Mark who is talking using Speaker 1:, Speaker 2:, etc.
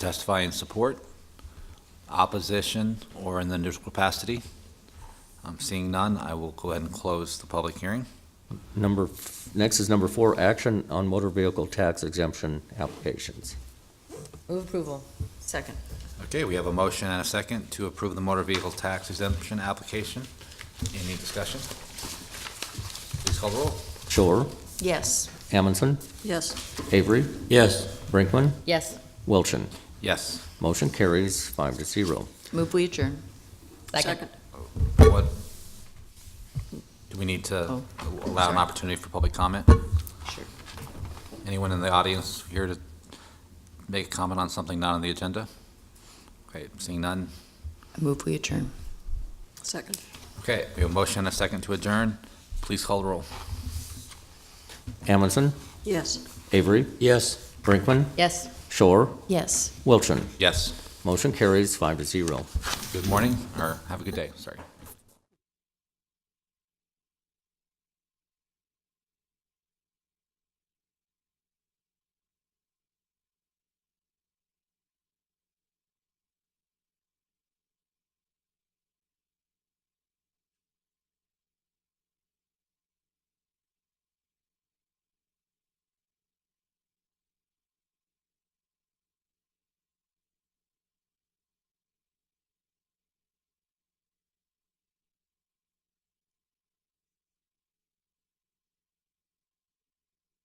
Speaker 1: testify in support, opposition, or in the neutral capacity? I'm seeing none. I will go ahead and close the public hearing.
Speaker 2: Number, f- next is number four, action on motor vehicle tax exemption applications.
Speaker 3: Move approval. Second.
Speaker 1: Okay, we have a motion and a second to approve the motor vehicle tax exemption application. Any discussion? Please call the roll.
Speaker 2: Shore,
Speaker 3: Yes.
Speaker 2: Amundson,
Speaker 3: Yes.
Speaker 2: Avery,
Speaker 4: Yes.
Speaker 2: Brinkman,
Speaker 3: Yes.
Speaker 2: Wilchin.
Speaker 1: Yes.
Speaker 2: Motion carries five to zero.
Speaker 3: Move we adjourn. Second.
Speaker 1: What, do we need to
Speaker 3: Oh,
Speaker 1: allow an
Speaker 3: sorry.
Speaker 1: opportunity for public comment?
Speaker 3: Sure.
Speaker 1: Anyone in the audience here to make a comment on something not on the agenda? Okay, seeing none.
Speaker 3: Move we adjourn. Second.
Speaker 1: Okay, we have a motion and a second to adjourn. Please call the roll.
Speaker 2: Amundson,
Speaker 3: Yes.
Speaker 2: Avery,
Speaker 4: Yes.
Speaker 2: Brinkman,
Speaker 3: Yes.
Speaker 2: Shore,
Speaker 3: Yes.
Speaker 2: Wilchin.
Speaker 1: Yes,
Speaker 2: Motion carries five to zero.
Speaker 1: good morning, or have a good day, sorry.